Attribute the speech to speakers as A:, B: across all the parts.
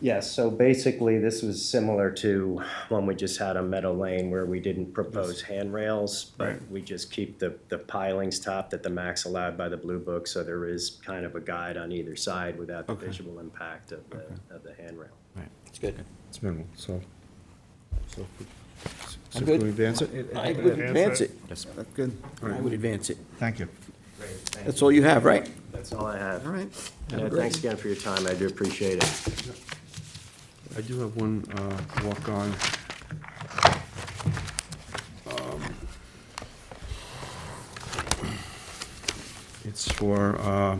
A: Yes, so basically, this was similar to when we just had on Meadow Lane where we didn't propose handrails, but
B: Right.
A: we just keep the, the pilings topped at the max allowed by the Blue Book, so there is kind of a guide on either side without the
B: Okay.
A: visual impact of the, of the handrail.
B: Right.
C: It's good.
D: It's minimal, so. so if we- so
C: I'm
D: if
C: good.
D: we advance it?
C: I would advance it.
D: Yes.
C: That's good. I would advance it.
D: Thank you.
C: That's all you have, right?
A: That's all I have.
C: All right.
A: Yeah, Thanks again for your time, I do appreciate it.
D: I do have one uh, walk-on. Um, It's for uh,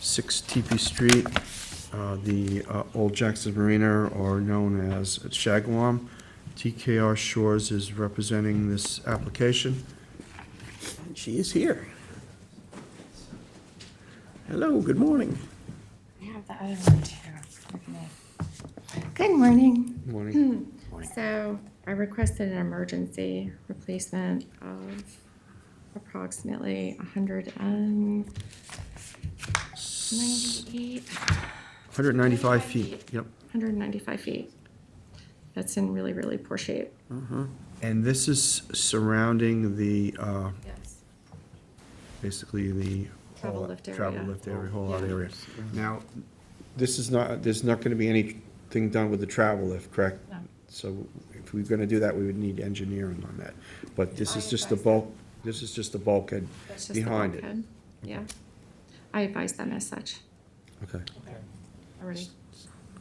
D: 6 TP Street, uh, the uh, Old Jackson Marina, or known as Shagwam. TKR Shores is representing this application.
C: She is here. Hello, good morning.
E: I have the other one too. Good morning.
D: Morning.
E: So I requested an emergency replacement of approximately hundred and ninety-eight,
D: 195
E: feet.
D: feet, yep.
E: hundred and ninety-five feet. That's in really, really poor shape.
D: And this is surrounding the, uh,
E: Yes.
D: basically the.
E: Travel
D: whole-
E: lift area.
D: Travel lift area, whole lot
E: Yeah.
D: area. Now, this is not, there's not gonna be anything done with the travel lift, correct?
E: No.
D: So if we we're gonna do that, we would need engineering on that. But this
E: I
D: is just the
E: advise them.
D: bulk, this is just the bulkhead
E: That's just the
D: behind it.
E: bulkhead. Yeah. I advise them as such
D: Okay.
E: already.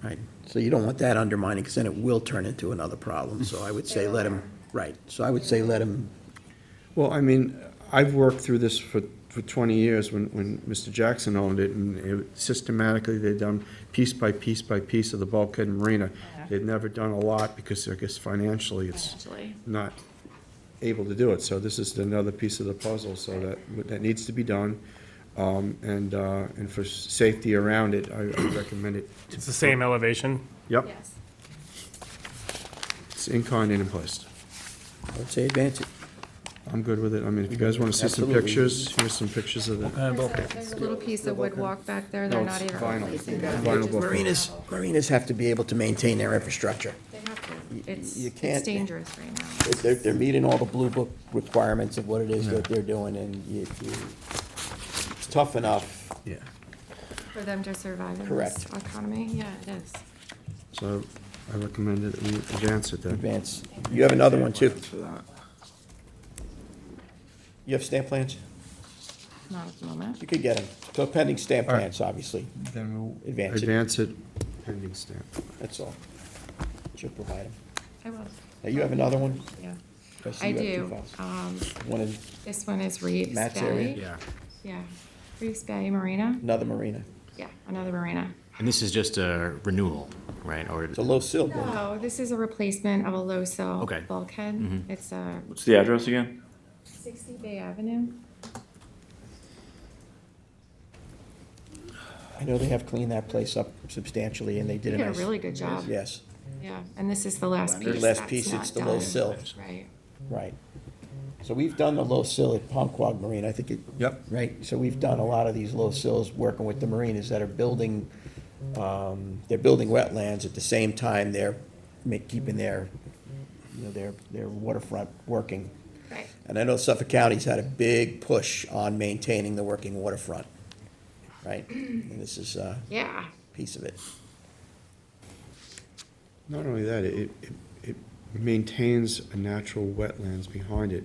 C: Right, so you don't want that undermining, because then it will turn into another problem, so I would say let him, right, so I would say let him,
D: Well, I mean, I've worked through this for, for twenty years when, when Mr. Jackson owned it, and it- systematically, they've done piece by piece by piece of the bulkhead and marina.
E: Yeah.
D: They've never done a lot, because I guess financially, it's
E: Actually,
D: not able to do it, so this is another piece of the puzzle, so that, that needs to be done. Um, and, uh, and for safety around it, I, I recommend it,
F: It's the same elevation.
D: yep,
E: yes.
D: it's in kind and in place.
C: I would say advance it.
D: I'm good with it, I mean, if you guys wanna see some
C: Absolutely.
D: pictures, here's some pictures of the,
E: There's a- there's a little piece of wood walk back there. They're
D: No,
E: not
D: it's
E: even
D: vinyl.
E: replacing
D: Yeah,
E: that.
D: vinyl
E: They just-
D: bulkhead.
C: Marinas, marinas have to be able to maintain their infrastructure.
E: They have to. It's,
C: you
E: it's
C: can't-
E: dangerous right now.
C: If They're, they're meeting all the blue book requirements of what it is that they're doing, and if you, it's tough enough.
D: yeah,
E: For them to survive in this
C: Correct.
E: economy, yeah, it is.
D: so I recommend that we advance it then.
C: Advance. You have another one, too. You have stamp plans?
E: Not at the moment.
C: You could get them. So pending stamp plans, obviously,
D: Then we'll
C: Advance it.
D: advance it pending stamp.
C: that's all. She'll provide them.
E: I will,
C: Now, you have another one?
E: yeah.
C: see
E: I
C: you have two
E: do.
C: files.
E: Um,
C: One in
E: this one is Reeves
C: Matt's area?
E: Bay. Yeah. Reeves Bay Marina.
C: another marina.
E: Yeah, another marina.
G: And this is just a renewal, right? Or
C: It's a low sill one.
E: So this is a replacement of a low sill
G: Okay.
E: bulkhead. It's a
H: What's the address again?
E: sixty Bay Avenue.
C: I know they have cleaned that place up substantially, and they
E: They
C: did a
E: did a
C: nice.
E: really good job.
C: Yes.
E: Yeah, and this is the last
C: The
E: piece
C: last
E: that's
C: piece,
E: not
C: it's the low
E: done.
C: sill.
E: Right.
C: Right. So we've done the low sill at Palmquag Marine, I think it.
D: Yep.
C: Right, so we've done a lot of these low sills, working with the marinas that are building, um, they're building wetlands at the same time they're make, keeping their, you know, their, their waterfront working.
E: Right.
C: And I know Suffolk County's had a big push on maintaining the working waterfront, right? And this is a
E: Yeah.
C: piece of it.
D: Not only that, it, it, it maintains a natural wetlands behind it,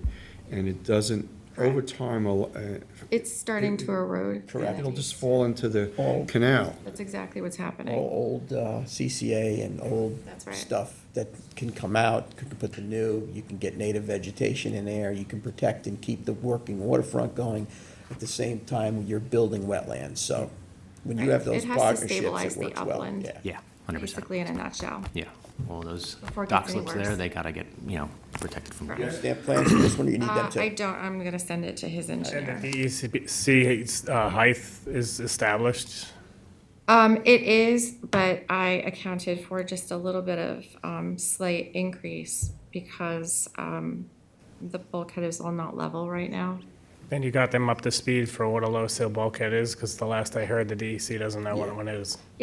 D: and it doesn't, over time, al- uh,
E: It's starting to erode.
C: Correct.
D: it'll just fall into the
C: Oh.
D: canal.
E: That's exactly what's happening.
C: all old uh, CCA and old
E: That's right.
C: stuff that can come out, you can put the new, you can get native vegetation in there, you can protect and keep the working waterfront going at the same time you're building wetlands, so when you
E: Right.
C: have those
E: It has to
C: partnerships, it
E: stabilize
C: works
E: the
C: well,
E: upland.
C: yeah.
G: Yeah,
A: oh.
G: hundred percent.
E: Basically, in a nutshell.
G: Yeah, all those
E: Before it
G: dock
E: gets any
G: slips
E: worse.
G: there, they gotta get, you know, protected from.
E: Right.
C: You have Stamp plans for this one, or you need
E: Uh,
C: them
E: I
C: too?
E: don't, I'm gonna send it to his
F: And
E: engineer.
F: the E DEC uh, height is established.
E: Um, it is, but I accounted for just a little bit of, um, slight increase because, um, the bulkhead is all not level right now.
F: And you got them up to speed for what a low sill bulkhead is, because the last I heard, the DEC E doesn't know what one is.